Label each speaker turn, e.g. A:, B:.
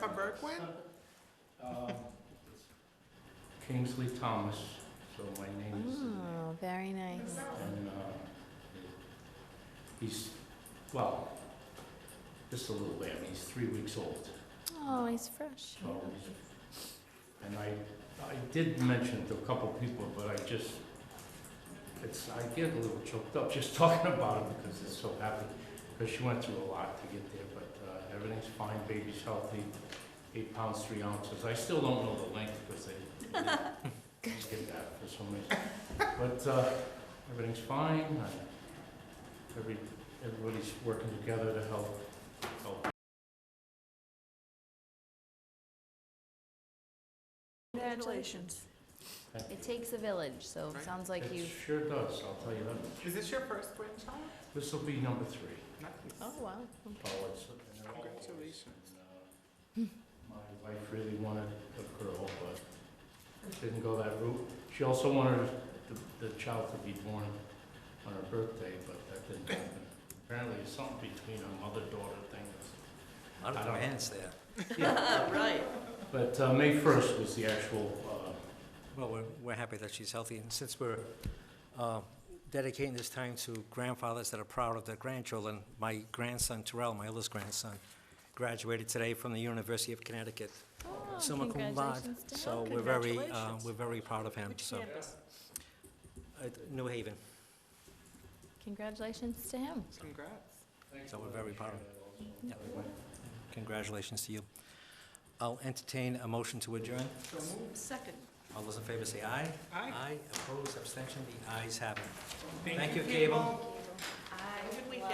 A: Berg win?
B: Um, Kingsley Thomas, so my name is,
C: Oh, very nice.
B: and, uh, he's, well, just a little lamb, he's three weeks old,
C: Oh, he's fresh.
B: so he's- and I, I did mention to a couple people, but I just, it's, I get a little choked up just talking about him because it's so happy, because she went through a lot to get there, but, uh, everything's fine, baby's healthy, eight pounds, three ounces, I still don't know the length because they did that for some reason. But uh, everything's fine, I- every, everybody's working together to help, help.
C: Congratulations. It takes a village, so it
A: Right.
C: sounds like
B: It
C: you.
B: sure does, I'll tell you that.
A: Is this your first win, Tom?
B: This will be number three.
C: Oh, wow.
B: Oh, it's- and they're all boys,
A: Congratulations.
B: and, uh, My wife really wanted a girl, but didn't go that route. She also wanted the, the child to be born on her birthday, but that didn't happen. Apparently, it's something between a mother-daughter thing that's
D: A lot
B: I
D: of
B: don't-
D: demands there.
A: Right.
B: But uh, May 1st was the actual, uh,
D: Well, we're, we're happy that she's healthy, and since we're uh, dedicating this time to grandfathers that are proud of their grandchildren, my grandson Terrell, my oldest grandson, graduated today from the University of Connecticut,
C: Oh,
D: summa cum laude.
C: congratulations to
D: So
C: him.
D: we're very, uh,
E: Congratulations.
D: we're very proud of him,
E: Which
D: so.
E: campus?
D: At New Haven,
C: Congratulations to him.
A: Congrats.
D: so we're very proud of him. Congratulations to you. I'll entertain a motion to adjourn.
A: So moved.
E: Second.
D: All those in favor say aye.
A: Aye.
D: Aye, opposed, abstention, the ayes have it. Thank you, Cable.